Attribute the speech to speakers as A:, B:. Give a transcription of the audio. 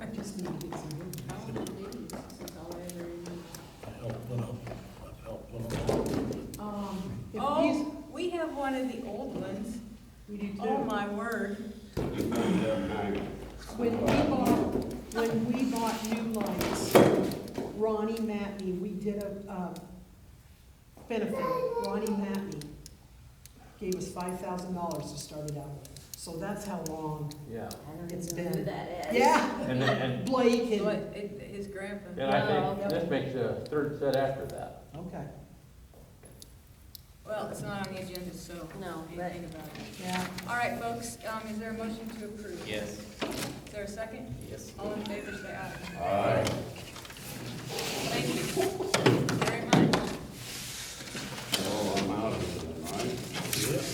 A: need to get some good college degrees, since all I ever Um, if he's,
B: Oh, we have one of the old ones.
A: we do
B: Oh,
A: too.
B: my word.
A: When we bought, when we bought new lights, Ronnie Matney, we did a, uh, benefit, Ronnie Matney gave us five thousand dollars to start it out with. So that's how long
C: Yeah,
A: it's
D: Who
A: been.
D: that is.
A: Yeah,
C: and, then- and,
A: Blake
B: What,
A: and,
B: it- his grandpa.
C: and I think this makes a third set after that.
A: okay,
B: Well, it's not on the agenda, so.
D: No,
B: we can
D: but-
B: think about it.
A: yeah.
B: All right, folks, um, is there a motion to approve?
E: Yes.
B: Is there a second?
E: Yes.
B: All in favor, say aye. Aye. Thank you.